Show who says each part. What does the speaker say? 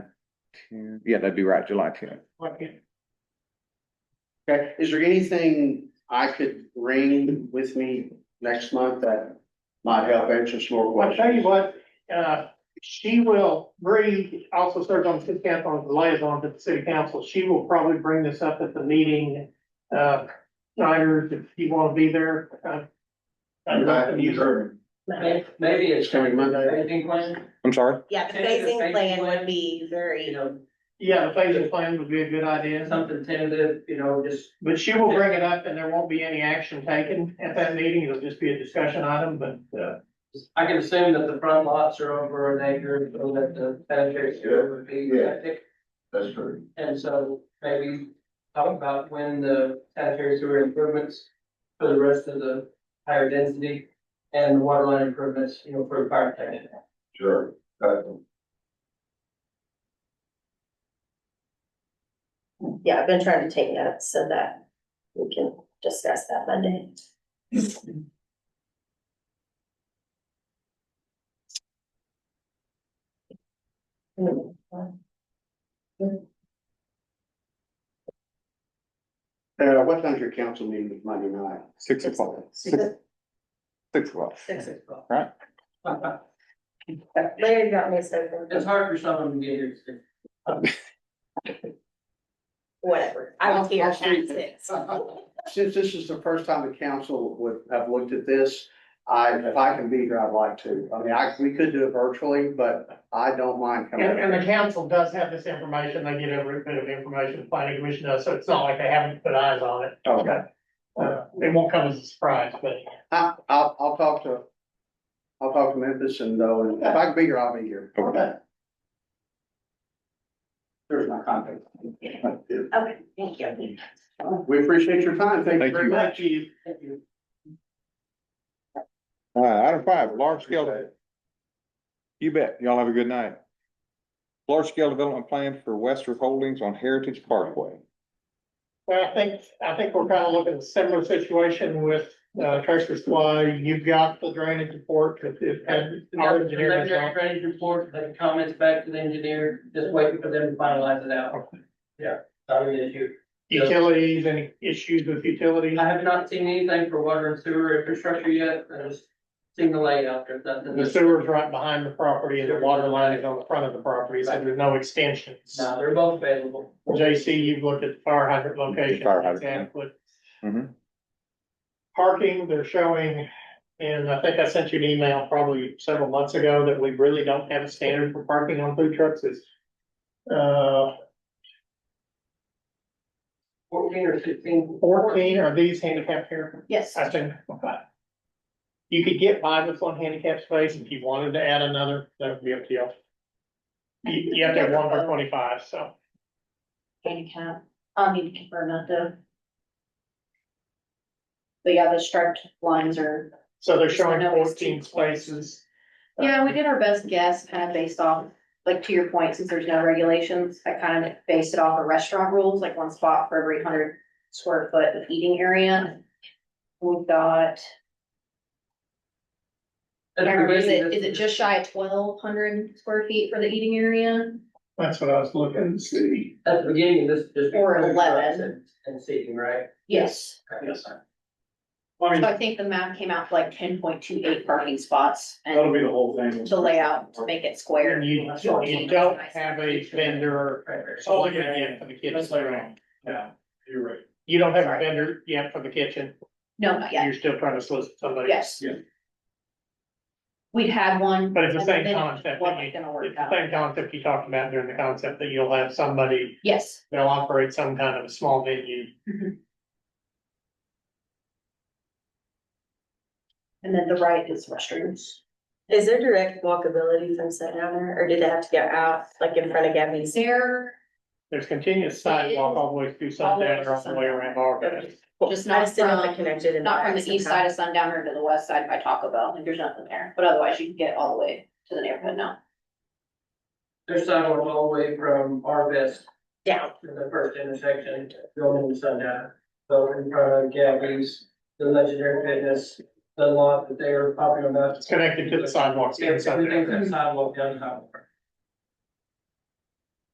Speaker 1: two, yeah, that'd be right, July two.
Speaker 2: Okay, is there anything I could bring with me next month that might help answer some more
Speaker 3: Well, I tell you
Speaker 2: questions?
Speaker 3: what, uh, she will, Bree also serves on the city council, as the liaison to the city council. She will probably bring this up at the meeting. Uh, Snyder, if you want to be there. uh, I'd love to meet her.
Speaker 4: Maybe-
Speaker 2: Maybe it's coming Monday.
Speaker 4: Anything planned?
Speaker 1: I'm sorry,
Speaker 5: Yeah, the
Speaker 4: Maybe the
Speaker 5: phasing
Speaker 4: phasing
Speaker 5: plan would
Speaker 4: plan.
Speaker 5: be
Speaker 4: You
Speaker 5: very,
Speaker 4: know,
Speaker 3: Yeah, the phasing plan would be a good idea,
Speaker 4: something tentative, you know, just,
Speaker 3: but she will bring it up and there won't be any action taken at that meeting. It'll just be a discussion item, but, uh,
Speaker 4: I can assume that the front lots are over an acre, so that the sanitary sewer would be
Speaker 2: Yeah.
Speaker 4: septic.
Speaker 2: That's true.
Speaker 4: And so maybe talk about when the sanitary sewer improvements for the rest of the higher density and the water line improvements, you know, for the fire protection.
Speaker 2: Sure.
Speaker 5: yeah, I've been trying to take notes so that we can discuss that Monday.
Speaker 2: Uh, what time's your council meeting Monday night?
Speaker 1: six o'clock, six,
Speaker 5: Six-
Speaker 1: six o'clock,
Speaker 5: six o'clock.
Speaker 1: right?
Speaker 5: Larry got me so, confused.
Speaker 4: It's hard for someone to get here.
Speaker 5: whatever, I don't care,
Speaker 2: I'll see.
Speaker 5: six.
Speaker 2: Since this is the first time the council would have looked at this, I, if I can be here, I'd like to. I mean, I, we could do it virtually, but I don't mind coming.
Speaker 3: and, and the council does have this information. They get every bit of information the planning commission does, so it's not like they haven't put eyes on it.
Speaker 2: Okay,
Speaker 3: Uh, it won't come as a surprise, but
Speaker 2: I, I'll, I'll talk to, I'll talk to Memphis and though, if I can be here, I'll be here.
Speaker 1: Okay.
Speaker 2: There's my contact.
Speaker 5: Okay, thank you.
Speaker 2: We appreciate your time. Thank you
Speaker 1: Thank
Speaker 2: very
Speaker 1: you.
Speaker 2: much.
Speaker 4: Thank you.
Speaker 1: All right, item five, large scale, you bet, y'all have a good night. Large scale development plan for Western Holdings on Heritage Parkway.
Speaker 3: Well, I think, I think we're kind of looking at a similar situation with uh, Tractor Supply. You've got the drainage report that it had our engineer. has
Speaker 4: Preliminary
Speaker 3: done.
Speaker 4: drainage report, the comments back to the engineer, just waiting for them to finalize it out. Yeah, I mean, if you-
Speaker 3: Utilities, any issues with utilities?
Speaker 4: I have not seen anything for water and sewer infrastructure yet, I just seen the layout, there's nothing.
Speaker 3: The sewer's right behind the property and the water line is on the front of the property, so there's no extensions.
Speaker 4: No, they're both available.
Speaker 3: JC, you've looked at the fire hydrant location.
Speaker 1: Fire hydrant,
Speaker 3: it's
Speaker 1: yeah.
Speaker 3: adequate.
Speaker 1: Mhm.
Speaker 3: Parking, they're showing, and I think I sent you an email probably several months ago that we really don't have a standard for parking on food trucks It's Uh,
Speaker 4: Fourteen or sixteen.
Speaker 3: fourteen, are these handicapped here?
Speaker 5: Yes.
Speaker 3: I think, okay. You could get by with one handicap space if you wanted to add another, that would be up to you. You, you have to have one per twenty-five, so.
Speaker 5: Handicap, I'll need to confirm that though. But yeah, the striped lines are.
Speaker 3: So they're showing
Speaker 5: No, it's
Speaker 3: fourteen Uh,
Speaker 5: two.
Speaker 3: spaces.
Speaker 5: Yeah, we did our best guess, kind of based off, like to your point, since there's no regulations, I kind of based it off of restaurant rules, like one spot for every hundred square foot of eating area. We've got, I
Speaker 4: That's
Speaker 5: don't remember, is it,
Speaker 4: provision.
Speaker 5: is it just shy of twelve hundred square feet for the eating area?
Speaker 3: That's what I was looking to see.
Speaker 4: At the beginning, this is just.
Speaker 5: Or
Speaker 4: food trucks
Speaker 5: 11.
Speaker 4: and- And seating, right?
Speaker 5: Yes.
Speaker 3: Yes.
Speaker 5: So I think the map came out for like ten point two eight parking spots and
Speaker 2: be the whole thing.
Speaker 5: to lay out to make it square.
Speaker 3: And you, you don't have a vendor, oh, yeah, yeah, for the kitchen. Yeah,
Speaker 2: You're right.
Speaker 3: you don't have a
Speaker 5: Sorry.
Speaker 3: vendor yet for the kitchen,
Speaker 5: No, not yet,
Speaker 3: you're still trying to solicit somebody.
Speaker 5: yes.
Speaker 2: Yeah.
Speaker 5: We'd had one.
Speaker 3: But it's the same
Speaker 5: and then
Speaker 3: concept that
Speaker 5: Wasn't
Speaker 3: you-
Speaker 5: gonna
Speaker 3: It's
Speaker 5: work
Speaker 3: the
Speaker 5: out.
Speaker 3: same concept you talked about during the concept that you'll have somebody,
Speaker 5: Yes.
Speaker 3: they'll operate some kind of a small venue.
Speaker 5: And then the right is restrooms.
Speaker 6: Is there direct walkability from Set Down there, or did they have to go out, like in front of Gabby's?
Speaker 5: There,
Speaker 3: There's continuous sidewalk all the way through Sundown or all the way around Marvin.
Speaker 5: just
Speaker 6: I
Speaker 5: not
Speaker 6: just didn't know if they
Speaker 5: from,
Speaker 6: connected in.
Speaker 5: not from the
Speaker 6: back
Speaker 5: east
Speaker 6: somehow.
Speaker 5: side of Sundowner to the west side by Taco Bell, like there's nothing there, but otherwise you can get all the way to the neighborhood now.
Speaker 4: There's sidewalks all the way from Arvest
Speaker 6: Down,
Speaker 4: to the first intersection, going into sundown. So in front of Gabby's, the legendary fitness, the lot that they were popular about.
Speaker 3: It's connected to the sidewalks.
Speaker 4: Yeah,
Speaker 3: in
Speaker 4: everything's
Speaker 3: Sundown.
Speaker 4: a sidewalk down the highway.